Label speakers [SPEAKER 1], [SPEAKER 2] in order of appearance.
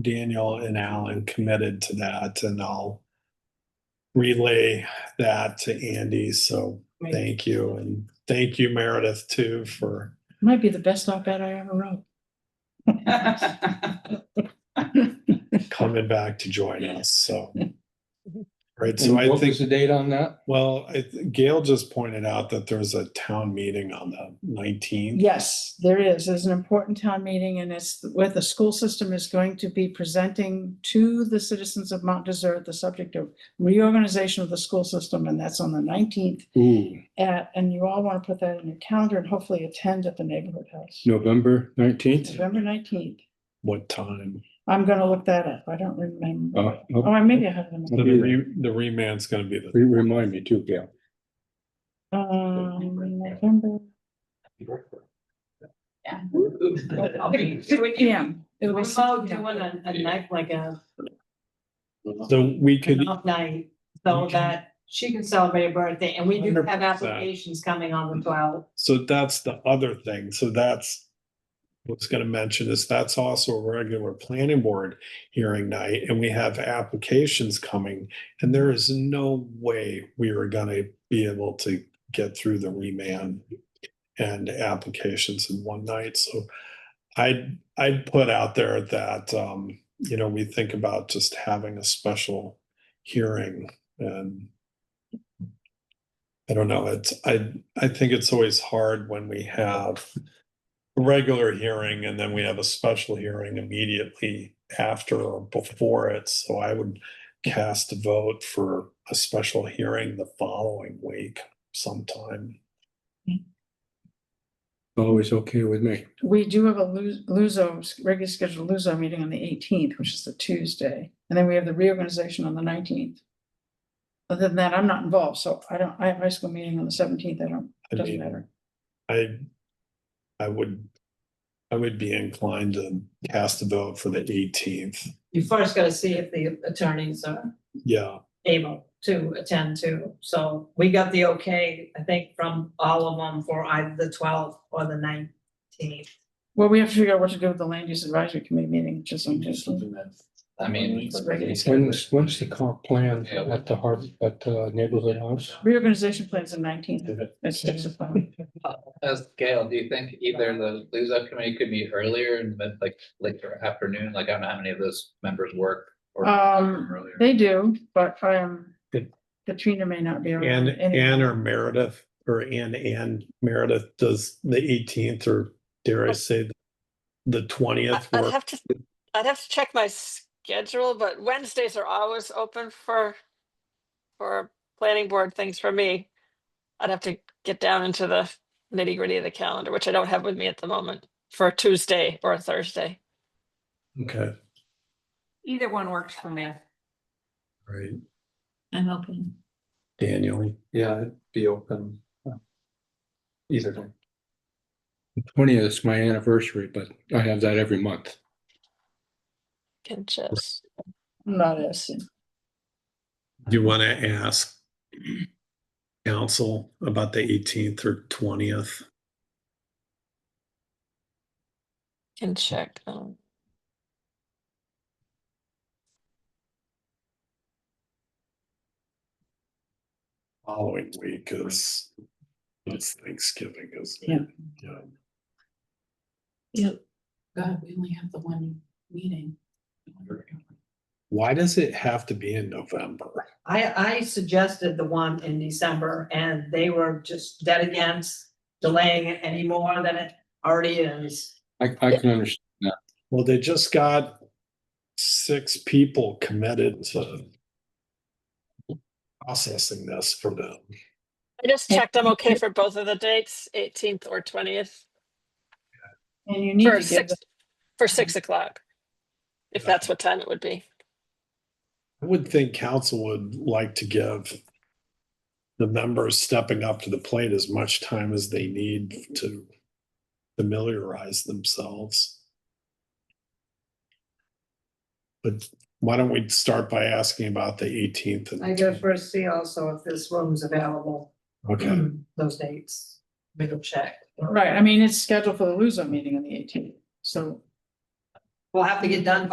[SPEAKER 1] Daniel and Alan committed to that and I'll relay that to Andy. So
[SPEAKER 2] Right.
[SPEAKER 1] thank you. And thank you Meredith too for,
[SPEAKER 3] Might be the best op-ed I ever wrote.
[SPEAKER 1] coming back to join us, so. Right, so
[SPEAKER 4] And
[SPEAKER 1] I
[SPEAKER 4] What
[SPEAKER 1] think,
[SPEAKER 4] was the date on that?
[SPEAKER 1] well, I th- Gail just pointed out that there's a town meeting on the nineteenth.
[SPEAKER 3] Yes, there is. There's an important town meeting and it's where the school system is going to be presenting to the citizens of Mount Desert the subject of reorganization of the school system and that's on the nineteenth.
[SPEAKER 4] Ooh,
[SPEAKER 3] At, and you all want to put that in your calendar and hopefully attend at the neighborhood house.
[SPEAKER 4] November nineteenth?
[SPEAKER 3] November nineteenth.
[SPEAKER 1] What time?
[SPEAKER 3] I'm gonna look that up. I don't remember.
[SPEAKER 4] Uh, oh,
[SPEAKER 3] Or maybe I have them.
[SPEAKER 1] The re, the remand's gonna be the,
[SPEAKER 4] re- remind me too, Gail.
[SPEAKER 3] Um, November,
[SPEAKER 2] I'll be doing it.
[SPEAKER 3] PM. It'll be six
[SPEAKER 2] Remote doing
[SPEAKER 3] p.m.
[SPEAKER 2] a, a night like a
[SPEAKER 1] so we could,
[SPEAKER 2] an off night, so that she can celebrate her birthday, and we do have
[SPEAKER 1] 100%.
[SPEAKER 2] applications coming on the twelfth.
[SPEAKER 1] so that's the other thing. So that's what's gonna mention is that's also a regular planning board hearing night and we have applications coming. And there is no way we are gonna be able to get through the remand and applications in one night. So I'd, I'd put out there that, um, you know, we think about just having a special hearing and I don't know, it's, I, I think it's always hard when we have a regular hearing and then we have a special hearing immediately after or before it. So I would cast a vote for a special hearing the following week sometime.
[SPEAKER 4] Always okay with me.
[SPEAKER 3] We do have a Lu- Luso, regularly scheduled Luso meeting on the eighteenth, which is the Tuesday, and then we have the reorganization on the nineteenth. Other than that, I'm not involved, so I don't, I have high school meeting on the seventeenth, I don't,
[SPEAKER 1] I
[SPEAKER 3] it doesn't
[SPEAKER 1] mean,
[SPEAKER 3] matter.
[SPEAKER 1] I, I would, I would be inclined to cast a vote for the eighteenth.
[SPEAKER 2] You first gotta see if the attorneys are
[SPEAKER 1] Yeah,
[SPEAKER 2] able to attend to, so we got the okay, I think, from all of them for either the twelfth or the nineteenth.
[SPEAKER 3] Well, we have to figure out what to do with the land use advisory committee meeting, which is on just,
[SPEAKER 5] I mean.
[SPEAKER 3] It's regular.
[SPEAKER 4] When's, when's the comp plan
[SPEAKER 5] Yeah.
[SPEAKER 4] at the har at the neighborhood house?
[SPEAKER 3] reorganization plans on nineteenth, that's just a plan.
[SPEAKER 5] As Gail, do you think either the Luso committee could meet earlier and then like later afternoon? Like, I don't know how many of those members work. or
[SPEAKER 3] Um,
[SPEAKER 5] earlier.
[SPEAKER 3] They do, but um,
[SPEAKER 1] Good.
[SPEAKER 3] Katrina may not be around.
[SPEAKER 1] and
[SPEAKER 3] anyway.
[SPEAKER 1] Ann or Meredith, or Ann and Meredith, does the eighteenth or dare I say the- the
[SPEAKER 6] I-
[SPEAKER 1] twentieth
[SPEAKER 6] I'd
[SPEAKER 1] work?
[SPEAKER 6] have to, I'd have to check my schedule, but Wednesdays are always open for, for planning board things for me. I'd have to get down into the nitty gritty of the calendar, which I don't have with me at the moment for Tuesday or Thursday.
[SPEAKER 1] Okay,
[SPEAKER 7] Either one works for me.
[SPEAKER 1] right,
[SPEAKER 7] I'm open.
[SPEAKER 1] Daniel,
[SPEAKER 8] Yeah, it'd be open. uh, Either day.
[SPEAKER 4] Twentieth is my anniversary, but I have that every month.
[SPEAKER 6] Can just,
[SPEAKER 3] I'm Not as soon.
[SPEAKER 1] do you want to ask council about the eighteenth or twentieth?
[SPEAKER 6] can check. um,
[SPEAKER 1] Following week is, it's Thanksgiving, isn't
[SPEAKER 3] Yeah.
[SPEAKER 1] it? Yeah.
[SPEAKER 7] Yep. God, we only have the one meeting.
[SPEAKER 1] Why does it have to be in November?
[SPEAKER 2] I, I suggested the one in December and they were just dead against delaying it any more than it already is.
[SPEAKER 4] I, I can understand.
[SPEAKER 1] Well, they just got six people committed to processing this for them.
[SPEAKER 6] I just checked, I'm okay for both of the dates, eighteenth or twentieth,
[SPEAKER 3] And you need to
[SPEAKER 6] for
[SPEAKER 3] give.
[SPEAKER 6] six, for six o'clock. If that's what time it would be.
[SPEAKER 1] I would think council would like to give the members stepping up to the plate as much time as they need to familiarize themselves. But why don't we start by asking about the eighteenth?
[SPEAKER 2] I gotta first see also if this room's available,
[SPEAKER 1] Okay,
[SPEAKER 2] those dates, we'll check.
[SPEAKER 3] Right, I mean, it's scheduled for the Luso meeting on the eighteenth, so
[SPEAKER 2] We'll have to get done